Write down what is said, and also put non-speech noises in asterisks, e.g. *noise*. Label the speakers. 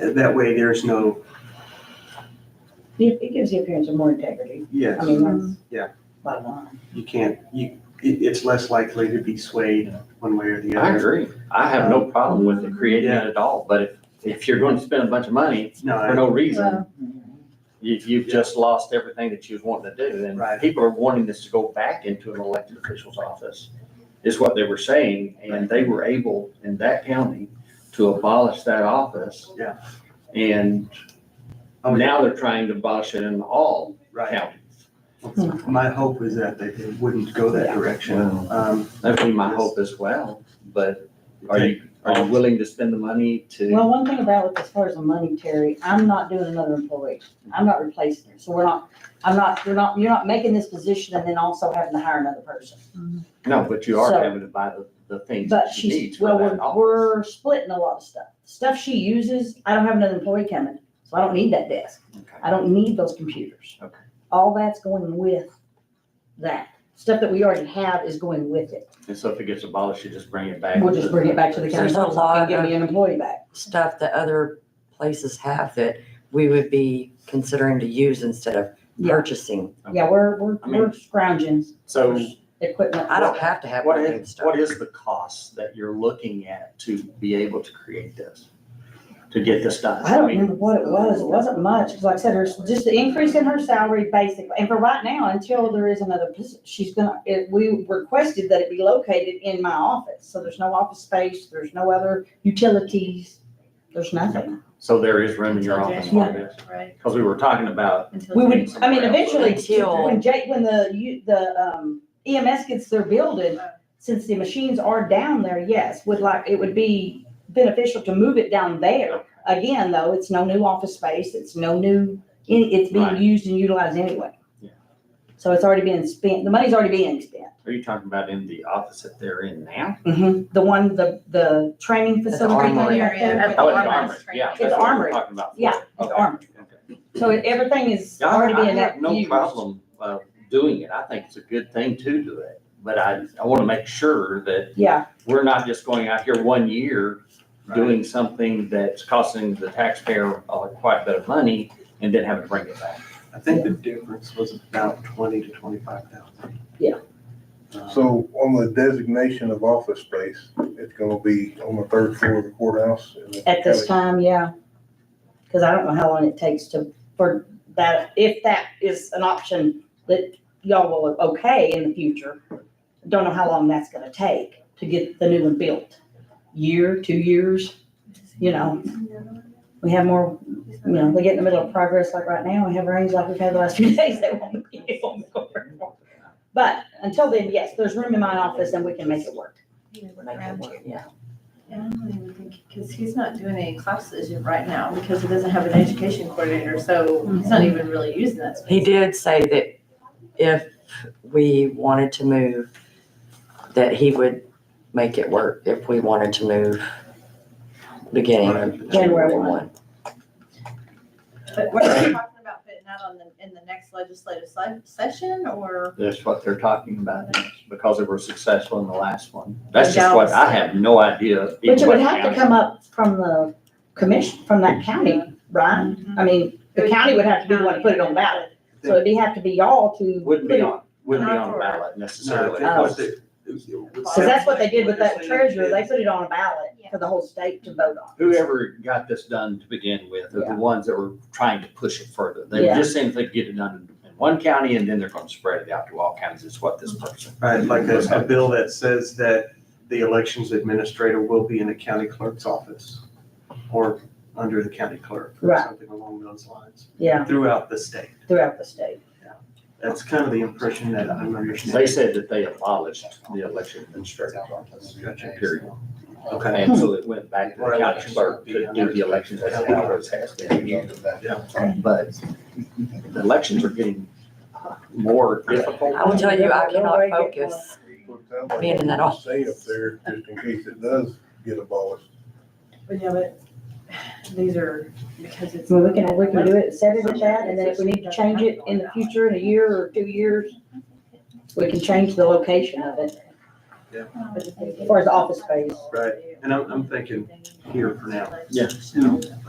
Speaker 1: That way there's no,
Speaker 2: It it gives the appearance of more integrity. I
Speaker 1: yes,
Speaker 2: mean,
Speaker 3: Mm-hmm.
Speaker 2: that's.
Speaker 1: Yeah.
Speaker 2: Bottom line.
Speaker 1: you can't, you, it, it's less likely to be swayed one way or the
Speaker 4: I
Speaker 1: other.
Speaker 4: agree. I have no problem with it creating it at all, but if, if you're going to spend a bunch of money
Speaker 1: No,
Speaker 4: for
Speaker 1: I-
Speaker 4: no reason,
Speaker 3: Well,
Speaker 4: you, you've just lost everything that you was wanting to do. And
Speaker 1: Right.
Speaker 4: people are wanting this to go back into an elected official's office, is what they were saying. And they were able in that county to abolish that office.
Speaker 1: Yeah.
Speaker 4: And
Speaker 1: Oh, yeah.
Speaker 4: now they're trying to abolish it in all
Speaker 1: right.
Speaker 4: counties.
Speaker 2: Hmm.
Speaker 1: My hope is that they they wouldn't go that direction.
Speaker 4: Wow.
Speaker 1: Um,
Speaker 4: That'd be my hope as well, but are you, are you
Speaker 1: Um,
Speaker 4: willing to spend the money to?
Speaker 2: Well, one thing about it, as far as the money, Terry, I'm not doing another employee. I'm not replacing her. So we're not, I'm not, we're not, you're not making this position and then also having to hire another person.
Speaker 4: No, but you are
Speaker 2: So-
Speaker 4: having to buy the, the things
Speaker 2: But
Speaker 4: that she needs
Speaker 2: she's,
Speaker 4: for
Speaker 2: well,
Speaker 4: that
Speaker 2: we're,
Speaker 4: office.
Speaker 2: we're splitting a lot of stuff. Stuff she uses, I don't have another employee coming, so I don't need that desk.
Speaker 4: Okay.
Speaker 2: I don't need those computers.
Speaker 4: Okay.
Speaker 2: All that's going with that. Stuff that we already have is going with it.
Speaker 4: And so if it gets abolished, you just bring it back.
Speaker 2: We'll just bring it back to the
Speaker 3: There's
Speaker 2: county
Speaker 3: a
Speaker 2: council
Speaker 3: lot
Speaker 2: and give
Speaker 3: of-
Speaker 2: me an employee back.
Speaker 3: Stuff that other places have that we would be considering to use instead of
Speaker 2: Yeah.
Speaker 3: purchasing.
Speaker 2: Yeah, we're, we're,
Speaker 4: I mean-
Speaker 2: we're scrounging
Speaker 4: So
Speaker 2: equipment.
Speaker 3: I don't have to have
Speaker 4: what
Speaker 3: my own
Speaker 4: is,
Speaker 3: stuff.
Speaker 4: what is the cost that you're looking at to be able to create this? To get this done?
Speaker 2: I don't
Speaker 4: mean,
Speaker 2: remember what it was. It wasn't much, 'cause like I said, her, just the increase in her salary basically. And for right now, until there is another, posi- she's gonna, it, we requested that it be located in my office. So there's no office space, there's no other utilities, there's nothing.
Speaker 4: So there is room in your
Speaker 5: Okay.
Speaker 4: office for this?
Speaker 5: Right.
Speaker 4: Because we were talking about,
Speaker 5: Until
Speaker 2: We
Speaker 5: we
Speaker 2: would, I mean, eventually,
Speaker 3: Until-
Speaker 2: when Jake, when the, you, the, um, EMS gets their building, since the machines are down there, yes, would like, it would be beneficial to move it down there. Again, though, it's no new office space, it's no new, it- it's being
Speaker 4: Right.
Speaker 2: used and utilized anyway.
Speaker 4: Yeah.
Speaker 2: So it's already being spent, the money's already being spent.
Speaker 4: are you talking about in the office that they're in now?
Speaker 2: The one, the, the training
Speaker 3: the
Speaker 2: facility.
Speaker 3: armory.
Speaker 2: Yeah,
Speaker 4: Oh, in the
Speaker 5: Armory.
Speaker 4: armory, yeah.
Speaker 2: It's
Speaker 4: that's what we're
Speaker 2: armory.
Speaker 4: Talking about.
Speaker 2: Yeah,
Speaker 4: Okay.
Speaker 2: the armory.
Speaker 4: Okay.
Speaker 2: So everything is
Speaker 4: Yeah, I
Speaker 2: already
Speaker 4: I
Speaker 2: being
Speaker 4: have no
Speaker 2: used.
Speaker 4: problem uh, doing it. I think it's a good thing to do it. But I, I want to make sure that
Speaker 2: Yeah,
Speaker 4: we're not just going out here one year doing something that's costing the taxpayer uh, quite a bit of money and then having to bring it back.
Speaker 1: I think the difference was about twenty to twenty-five thousand. Um,
Speaker 2: Yeah.
Speaker 6: So on the designation of office space, it's gonna be on the third floor of the courthouse? and the
Speaker 2: at this
Speaker 6: county-
Speaker 2: time, yeah. Cause I don't know how long it takes to, for that, if that is an option that y'all will okay in the future. Don't know how long that's gonna take to get the new one built. Year, two years, you know? We have more, you know, we get in the middle of progress like right now, we have rains like we've had the last *laughs* few days, they won't be able to go very far. But until then, yes, there's room in my office and we can make it work.
Speaker 3: Make it work, Yeah.
Speaker 5: Because he's not doing any classes right now because he doesn't have an education coordinator, so he's
Speaker 2: Mm-hmm.
Speaker 5: not even really using that
Speaker 3: He
Speaker 5: space.
Speaker 3: did say that if we wanted to move, that he would make it work if we wanted to move beginning of
Speaker 2: January
Speaker 3: January
Speaker 2: one.
Speaker 3: one.
Speaker 5: But what are you talking about putting out on the, in the next legislative se- session or?
Speaker 4: That's what they're talking about next, because they were successful in the last one. That's just what, I have no idea. in
Speaker 2: Which it would
Speaker 4: what
Speaker 2: have to
Speaker 4: county.
Speaker 2: come up from the commission, from that county, right? I mean, the county would have to be the one to put it on ballot, so it'd be, have to be y'all to.
Speaker 4: Wouldn't be on, wouldn't be
Speaker 5: Not
Speaker 4: on the
Speaker 5: for-
Speaker 4: ballot
Speaker 1: No,
Speaker 4: necessarily.
Speaker 1: I
Speaker 4: because
Speaker 1: think what they-
Speaker 2: Cause uh, that's what they did with that treasurer, they
Speaker 1: They
Speaker 2: put it on a ballot for the whole state to vote on.
Speaker 4: Whoever got this done to begin with are
Speaker 2: Yeah.
Speaker 4: the ones that were trying to push it further. They were
Speaker 2: Yeah.
Speaker 4: just saying if they could get it done in one county and then they're gonna spread it out to all counties, is what this person.
Speaker 1: Right, like there's a bill that says that the elections administrator will be in the county clerk's office or under the county clerk or
Speaker 2: Right.
Speaker 1: something along those lines
Speaker 2: Yeah,
Speaker 1: throughout the state.
Speaker 2: throughout the state.
Speaker 1: That's kind of the impression that I'm
Speaker 4: They
Speaker 1: understanding.
Speaker 4: said that they abolished the election administrator office, period.
Speaker 1: Okay.
Speaker 4: And so it went back to the county clerk to do the elections as it always has been. But the elections are getting more difficult.
Speaker 3: I will tell you, I cannot focus.
Speaker 6: Well, it sounds like
Speaker 3: Being in that office.
Speaker 6: Stay up there, just in case it does get abolished.
Speaker 5: But yeah, but these are, because it's.
Speaker 2: I mean, we can, we can do it, set it at that, and then if we need to change it in the future, in a year or two years, we can change the location of it, as far as the office space.
Speaker 1: Right, and I'm, I'm thinking here for now.
Speaker 4: Yeah.
Speaker 1: You know,